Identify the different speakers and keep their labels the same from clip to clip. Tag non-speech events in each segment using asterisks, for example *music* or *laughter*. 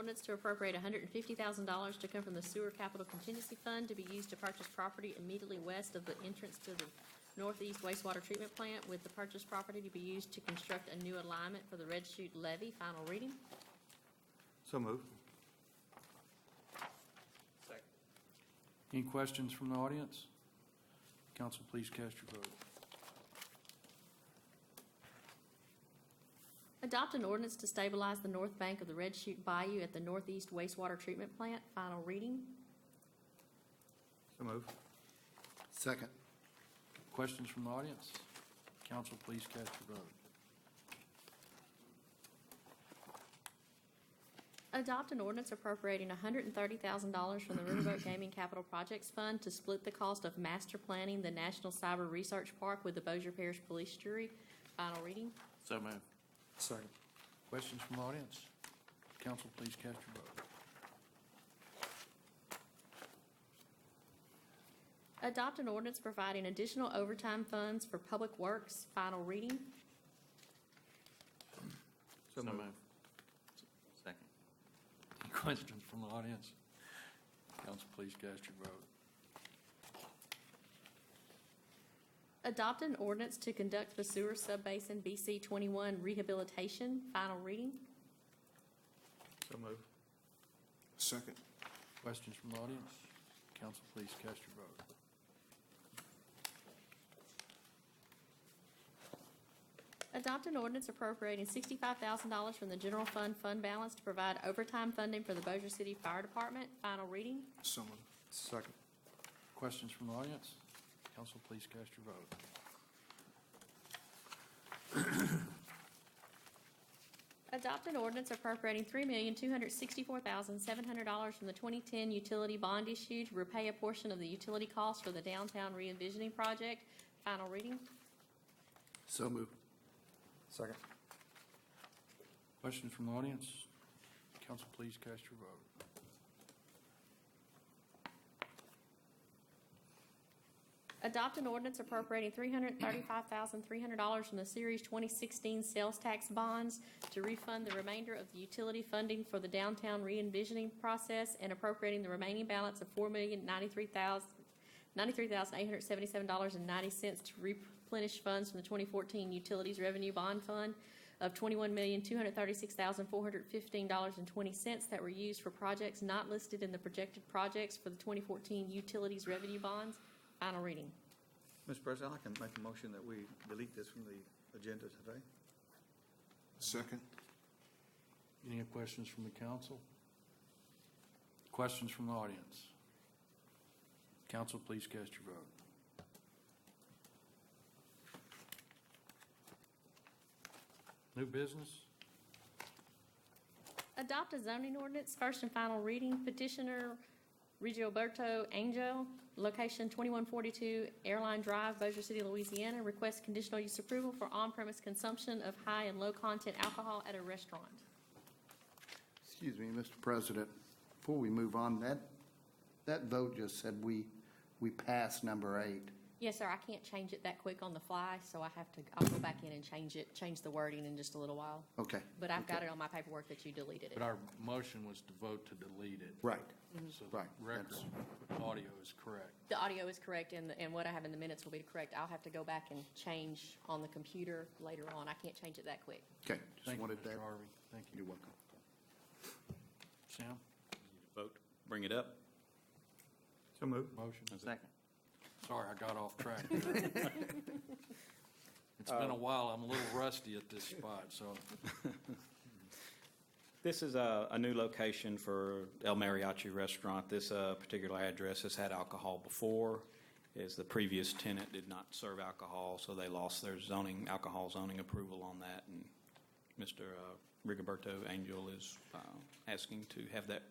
Speaker 1: Ordinance to appropriate hundred and fifty thousand dollars to come from the sewer capital contingency fund to be used to purchase property immediately west of the entrance to the northeast wastewater treatment plant with the purchased property to be used to construct a new alignment for the Red Chute levee. Final reading.
Speaker 2: So moved.
Speaker 3: Any questions from the audience? Council, please cast your vote.
Speaker 1: Adopt an ordinance to stabilize the north bank of the Red Chute Bayou at the northeast wastewater treatment plant. Final reading.
Speaker 2: So moved.
Speaker 4: Second.
Speaker 3: Questions from the audience? Council, please cast your vote.
Speaker 1: Adopt an ordinance appropriating $130,000 from the Riverboat Gaming Capital Projects Fund to split the cost of master planning the National Cyber Research Park with the Bossier Parish Police Jury. Final reading.
Speaker 3: So moved.
Speaker 4: Second.
Speaker 3: Questions from the audience? Council, please cast your vote.
Speaker 1: Adopt an ordinance providing additional overtime funds for public works. Final reading.
Speaker 2: So moved.
Speaker 5: Second.
Speaker 3: Any questions from the audience? Council, please cast your vote.
Speaker 1: Adopt an ordinance to conduct the sewer subbasin BC 21 rehabilitation. Final reading.
Speaker 2: So moved.
Speaker 4: Second.
Speaker 3: Questions from the audience? Council, please cast your vote.
Speaker 1: Adopt an ordinance appropriating sixty-five thousand dollars from the general fund fund balance to provide overtime funding for the Bossier City Fire Department. Final reading.
Speaker 4: So moved. Second.
Speaker 3: Questions from the audience? Council, please cast your vote.
Speaker 1: Adopt an ordinance appropriating three million, two hundred sixty-four thousand, seven hundred dollars from the twenty-ten utility bond issue to repay a portion of the utility costs for the downtown re-envisioning project. Final reading.
Speaker 4: So moved. Second.
Speaker 3: Questions from the audience? Council, please cast your vote.
Speaker 1: Adopt an ordinance appropriating three hundred thirty-five thousand, three hundred dollars from the Series twenty sixteen sales tax bonds to refund the remainder of the utility funding for the downtown re-envisioning process and appropriating the remaining balance of four million, ninety-three thousand, ninety-three thousand, eight hundred seventy-seven dollars and ninety cents to replenish funds from the twenty fourteen Utilities Revenue Bond Fund of twenty-one million, two hundred thirty-six thousand, four hundred fifteen dollars and twenty cents that were used for projects not listed in the projected projects for the twenty fourteen Utilities Revenue Bonds. Final reading.
Speaker 2: Mr. President, I can make a motion that we delete this from the agenda today.
Speaker 4: Second.
Speaker 3: Any questions from the council? Questions from the audience? Council, please cast your vote. New business?
Speaker 1: Adopt a zoning ordinance, first and final reading, petitioner Rigoberto Angel, location 2142 Airline Drive, Bossier City, Louisiana, requests conditional use approval for on-premise consumption of high and low-content alcohol at a restaurant.
Speaker 6: Excuse me, Mr. President, before we move on, that, that vote just said we, we passed number eight.
Speaker 1: Yes, sir, I can't change it that quick on the fly, so I have to, I'll go back in and change it, change the wording in just a little while.
Speaker 6: Okay.
Speaker 1: But I've got it on my paperwork that you deleted
Speaker 3: But
Speaker 1: it.
Speaker 3: our motion was to vote to delete it.
Speaker 6: Right.
Speaker 3: So the
Speaker 6: Right,
Speaker 3: record
Speaker 6: that's-
Speaker 3: audio is correct.
Speaker 1: The audio is correct, and, the- and what I have in the minutes will be correct. I'll have to go back and change on the computer later on. I can't change it that quick.
Speaker 6: Okay, just
Speaker 3: Thank you,
Speaker 6: wanted that.
Speaker 3: Mr. Harvey. Thank you.
Speaker 6: You're welcome.
Speaker 3: Sam,
Speaker 5: Vote, bring it up.
Speaker 2: So moved.
Speaker 3: motion?
Speaker 5: Second.
Speaker 3: Sorry, I got off
Speaker 6: *laughs*
Speaker 3: track. It's
Speaker 6: Uh,
Speaker 3: been a while. I'm a little rusty at this spot, so
Speaker 5: This is a, a new location for El Mariachi Restaurant. This, uh, particular address has had alcohol before, as the previous tenant did not serve alcohol, so they lost their zoning, alcohol zoning approval on that, and Mr. uh, Rigoberto Angel is, uh, asking to have that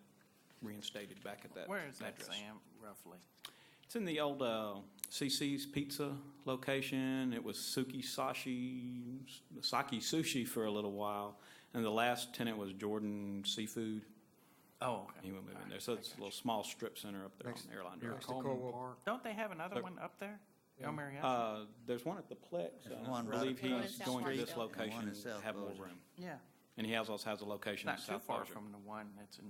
Speaker 5: reinstated back at that address.
Speaker 7: Where is that, Sam, roughly?
Speaker 5: It's in the old uh, CC's Pizza location. It was Suki Sashi, Saki Sushi for a little while, and the last tenant was Jordan Seafood.
Speaker 7: Oh, okay.
Speaker 5: He went moving there, so it's a little small strip center up there on
Speaker 2: Next-
Speaker 5: Airline
Speaker 3: near
Speaker 5: Drive.
Speaker 3: Coleman
Speaker 2: Caldwell.
Speaker 3: Park.
Speaker 7: Don't they have another
Speaker 5: Look.
Speaker 7: one up there? El Mariachi?
Speaker 5: Uh, there's one at the Plex.
Speaker 7: There's
Speaker 5: I
Speaker 7: one right
Speaker 5: believe
Speaker 1: across
Speaker 5: he's
Speaker 1: the
Speaker 5: going to
Speaker 1: street.
Speaker 5: this
Speaker 1: And one
Speaker 2: in
Speaker 5: location to
Speaker 2: South
Speaker 5: have more
Speaker 2: Bossier.
Speaker 5: room.
Speaker 7: Yeah.
Speaker 5: And he has, also has a location in
Speaker 7: Not too
Speaker 5: South
Speaker 7: far
Speaker 5: Bossier.
Speaker 7: from the one that's in